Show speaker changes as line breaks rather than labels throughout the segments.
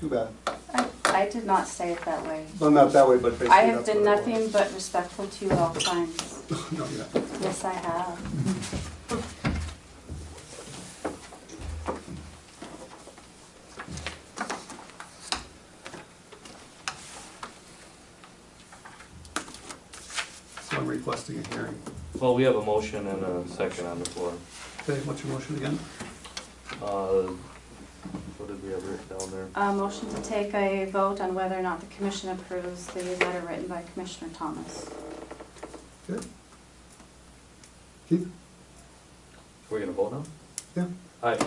Too bad.
I, I did not say it that way.
No, not that way, but basically
I have
that's
been
what it
nothing but respectful to you at all times.
was. No, you're not.
Yes, I have.
So I'm requesting a hearing.
Well, we have a motion and a second on the floor.
Okay, what's your motion again?
Uh, What did we have written down there?
A motion to take a vote on whether or not the commission approves the letter written by Commissioner Thomas.
Good. Keith,
Are we gonna vote now?
yeah,
Aye.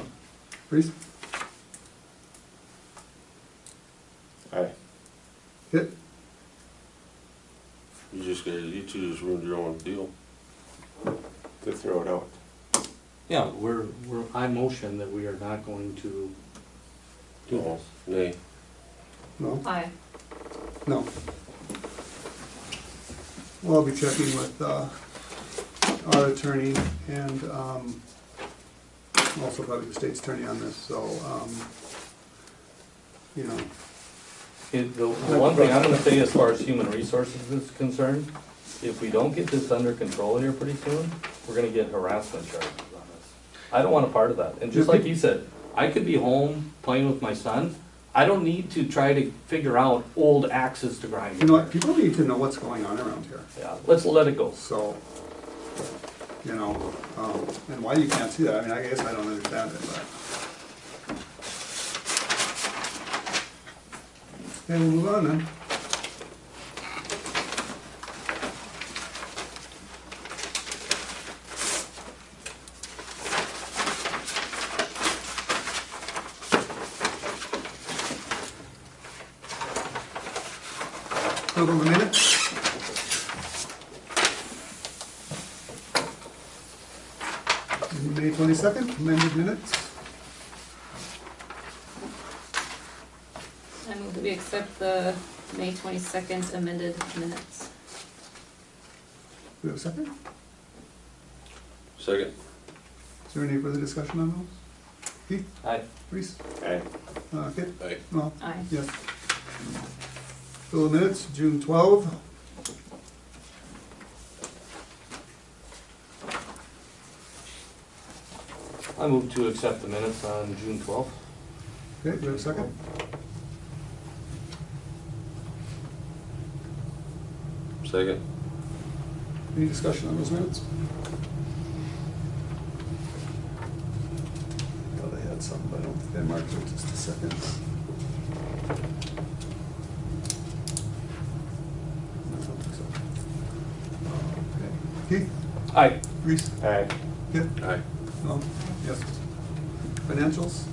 Reese,
Aye.
hit,
You just got, you two just ruined your own deal.
To throw it out.
Yeah, we're, we're, I motion that we are not going to do
No,
this.
nay.
no,
Aye.
no. Well, I'll be checking with, uh, our attorney and, um, also probably the state's attorney on this, so, um, you know,
It- The the one thing I'm gonna say as far as human resources is concerned, if we don't get this under control here pretty soon, we're gonna get harassment charges on us. I don't want a part of that. And just like you said,
I could be home playing with my son. I don't need to try to figure out old axes to grind.
you know what, people need to know what's going on around here.
yeah, let's let it go.
So, you know, um, and why you can't see that, I mean, I guess I don't understand it, but. Okay, we'll move on then. Hold on a minute. May twenty-second, amended minutes.
I move that we accept the May twenty-second amended minutes.
We have a second?
Second.
Is there any further discussion on those? Keith,
Aye.
Reese,
Aye.
uh, Kit,
Aye.
no,
Aye.
yes. Bill of minutes, June twelve.
I move to accept the minutes on June twelfth.
Okay, do we have a second?
Second.
Any discussion on those minutes? Thought I had some, but I don't think I marked it, just a second. No, I don't think so. Okay. Keith,
Aye.
Reese,
Aye.
Kit,
Aye.
No, yes. Financials?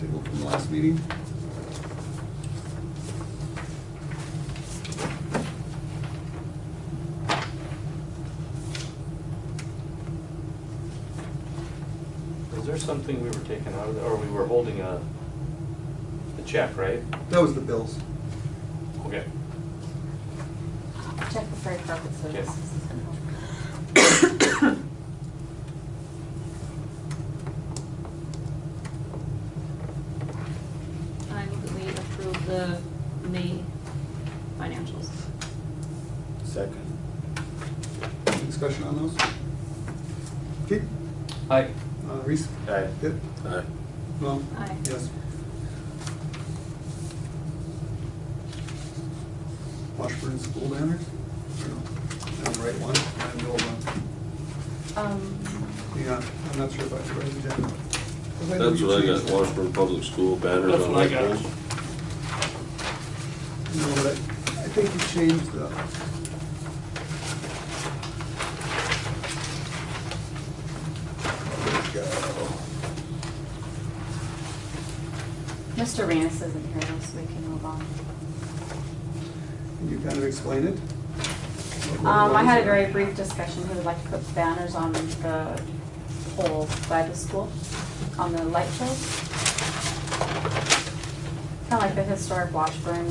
Table from last meeting?
Is there something we were taking out of, there, or we were holding a, a check, right?
That was the bills.
Okay.
Check for freight purposes.
Yes.
I move that we approve the May financials.
Second.
Any Discussion on those? Keith,
Aye.
uh, Reese,
Aye.
Kit,
Aye.
no,
Aye.
yes. Washburn School banners? Or no? I don't write one, I know one.
Um,
Yeah, I'm not sure if I should write it down. 'Cause know
That's
you
what I
changed
got,
it.
Washburn Public School banners
That's
on
what I
light
got.
poles.
No, but I, I think you changed the,
Mr. Ranis isn't here, so we can move on.
Can you kind of explain it?
Um, I had a very brief discussion, who would like to put banners on the poles by the school, on the light poles. Kind of like the historic Washburn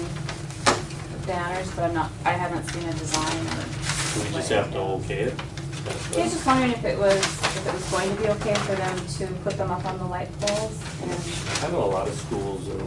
banners, but I'm not, I haven't seen a design or.
Do we just have to okay it?
I was just wondering if it was, if it was going to be okay for them to put them up on the light poles and
I know a lot of schools are